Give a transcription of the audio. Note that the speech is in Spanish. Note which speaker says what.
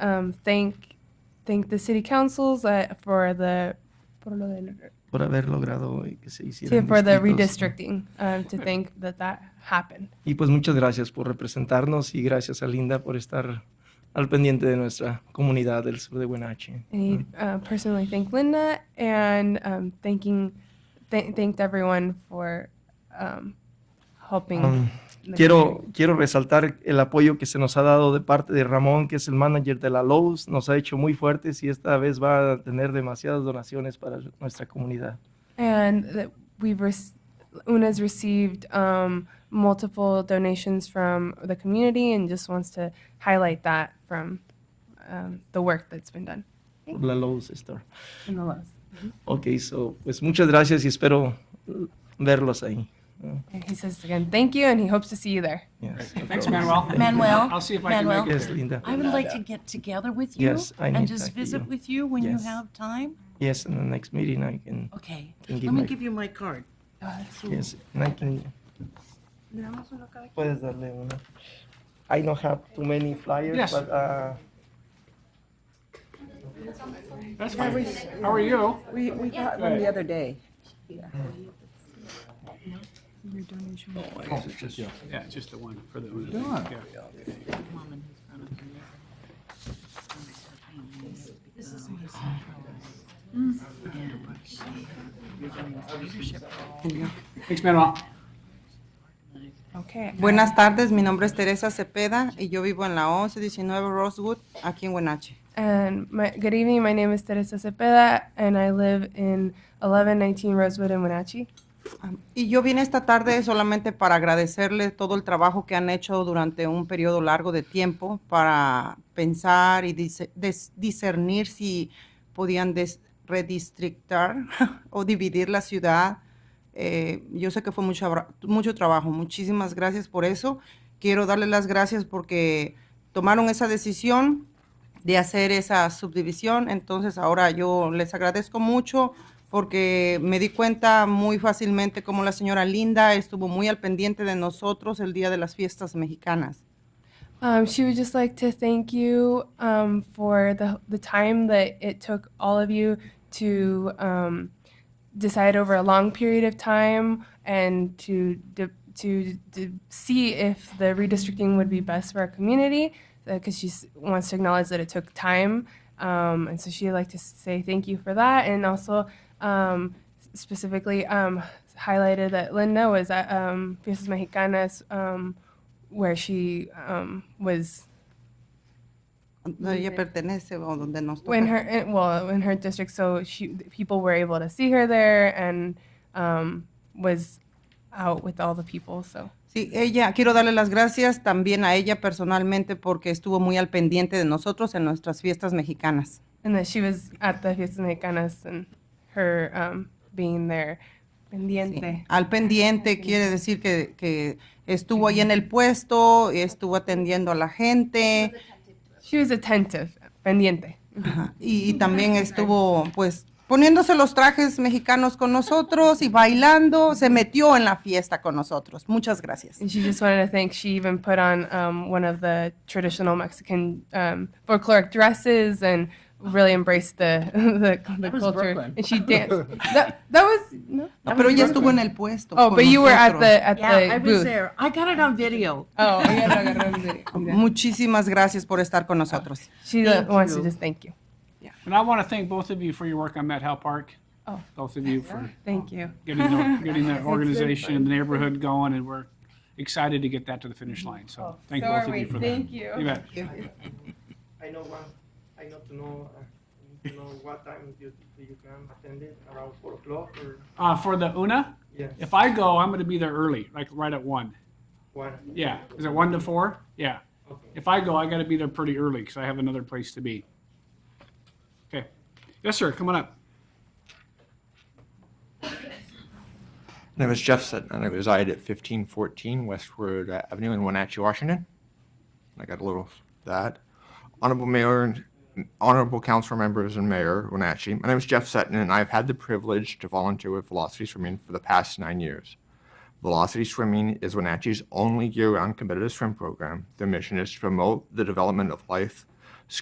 Speaker 1: um, thank thank the city councils uh, for the por lo del-
Speaker 2: por haber logrado eh, que se
Speaker 1: sí,
Speaker 2: hicieran
Speaker 1: for the
Speaker 2: distritos.
Speaker 1: redistricting um, to think that that happened.
Speaker 2: Y pues muchas gracias por representarnos y gracias a Linda por estar al pendiente de nuestra comunidad del sur de Buenache.
Speaker 1: I uh, personally thank Linda and um, thanking th- thanked everyone for um, helping.
Speaker 2: Um,
Speaker 1: the
Speaker 2: Quiero, quiero resaltar el apoyo que se nos ha dado de parte de Ramón, que es el manager de la Lowe's. Nos ha hecho muy fuertes y esta vez va a tener demasiadas donaciones para nuestra comunidad.
Speaker 1: And that we've rec- Una's received um, multiple donations from the community and just wants to highlight that from um, the work that's been done
Speaker 2: Por la Lowe's Store.
Speaker 1: in the Lowe's.
Speaker 2: Ok, so, pues muchas gracias y espero eh, verlos ahí. Uh,
Speaker 1: And he says again, thank you, and he hopes to see you there.
Speaker 2: yes, of
Speaker 3: Thanks,
Speaker 2: course.
Speaker 3: Manuel.
Speaker 2: Thank you.
Speaker 4: Manuel?
Speaker 3: I'll see if I can make
Speaker 4: Manuel?
Speaker 2: Yes, Linda.
Speaker 4: I would like to get together with you
Speaker 2: Yes, I
Speaker 4: and
Speaker 2: need
Speaker 4: just
Speaker 2: that,
Speaker 4: visit
Speaker 2: yeah.
Speaker 4: with you when you
Speaker 2: Yes.
Speaker 4: have time.
Speaker 2: Yes, in the next meeting I can.
Speaker 4: Okay.
Speaker 2: Can give
Speaker 4: Let me
Speaker 2: my-
Speaker 4: give you my card.
Speaker 2: Yes, and I can. Puedes darle una. I don't have too many flyers,
Speaker 3: Yes.
Speaker 2: but uh,
Speaker 3: That's fine. How are you?
Speaker 5: We, we got
Speaker 3: Right.
Speaker 5: one the other day.
Speaker 3: Oh, Yeah, just the one for the. yeah.
Speaker 4: This is my son. And she is doing this leadership role.
Speaker 3: Thanks, Manuel.
Speaker 1: Okay.
Speaker 6: Buenas tardes, mi nombre es Teresa Cepeda y yo vivo en la 1119 Rosewood, aquí en Huenache.
Speaker 1: And my, good evening. My name is Teresa Cepeda, and I live in 1119 Rosewood in Wenatchee.
Speaker 6: Am- Y yo vine esta tarde solamente para agradecerles todo el trabajo que han hecho durante un periodo largo de tiempo para pensar y dise- des- discernir si podían des- redistrictar o dividir la ciudad. Eh, yo sé que fue mucho, abra- mucho trabajo. Muchísimas gracias por eso. Quiero darles las gracias porque tomaron esa decisión de hacer esa subdivisión. Entonces ahora yo les agradezco mucho porque me di cuenta muy fácilmente como la señora Linda estuvo muy al pendiente de nosotros el día de las fiestas mexicanas.
Speaker 1: Um, she would just like to thank you um, for the, the time that it took all of you to um, decide over a long period of time and to, de- to, to see if the redistricting would be best for our community because she s- wants to acknowledge that it took time. Um, and so she'd like to say thank you for that and also um, specifically um, highlighted that Linda was at um, Fiestas Mexicanas. Um, where she um, was
Speaker 6: Donde ella pertenece o donde nos toca.
Speaker 1: when her eh, well in her district, so she people were able to see her there and um, was out with all the people. So
Speaker 6: Sí, ella, quiero darle las gracias también a ella personalmente porque estuvo muy al pendiente de nosotros en nuestras fiestas mexicanas.
Speaker 1: and that she was at the Fiestas Mexicanas and her um, being there.
Speaker 6: Sí,
Speaker 1: Pendiente.
Speaker 6: Al pendiente quiere decir que, que estuvo ahí en el puesto, estuvo atendiendo a la gente
Speaker 1: She was attentive. Pendiente.
Speaker 6: ajá, y, y también estuvo pues poniéndose los trajes mexicanos con nosotros y bailando, se metió en la fiesta con nosotros. Muchas gracias.
Speaker 1: And she just wanted to thank. She even put on um, one of the traditional Mexican um, folkloric dresses and really embraced the the, the
Speaker 5: was
Speaker 1: culture.
Speaker 5: Brooklyn.
Speaker 1: And she danced. that, that was no.
Speaker 6: No, pero ella estuvo en el puesto.
Speaker 1: Oh,
Speaker 6: con
Speaker 1: but you were at
Speaker 6: nosotros.
Speaker 1: the at
Speaker 4: Yeah,
Speaker 1: the
Speaker 4: I
Speaker 1: booth.
Speaker 4: was there. I got it on video.
Speaker 1: Oh, yeah, no, no, no, no, no.
Speaker 6: Muchísimas gracias por estar con nosotros.
Speaker 1: She
Speaker 4: Thank
Speaker 1: wants
Speaker 4: you.
Speaker 1: to just thank you.
Speaker 3: And I want to thank both of you for your work on Met Hal Park.
Speaker 1: Oh.
Speaker 3: Both of you for
Speaker 1: Thank you.
Speaker 3: getting the, getting the organization and the neighborhood going, and we're excited to get that to the finish line. So thank both of you for that.
Speaker 1: Thank you.
Speaker 3: You bet.
Speaker 2: I know one. I know to know. Uh, I need to know what time do you, do you can attend it around four o'clock or
Speaker 3: Uh, for the UNA,
Speaker 2: yes
Speaker 3: if I go, I'm going to be there early, like right at one.
Speaker 2: one.
Speaker 3: Yeah, is it one to four? Yeah.
Speaker 2: Okay.
Speaker 3: If I go, I got to be there pretty early because I have another place to be. Okay. Yes, sir. Come on up.
Speaker 7: name is Jeff Sutton, and I reside at 1514 Westward Avenue in Wenatchee, Washington. And I got a little of that. Honorable Mayor and Honorable Council members and Mayor Wenatchee, my name is Jeff Sutton, and I've had the privilege to volunteer with Velocity Swimming for the past nine years. Velocity Swimming is Wenatchee's only year round competitive swim program. Their mission is to promote the development of life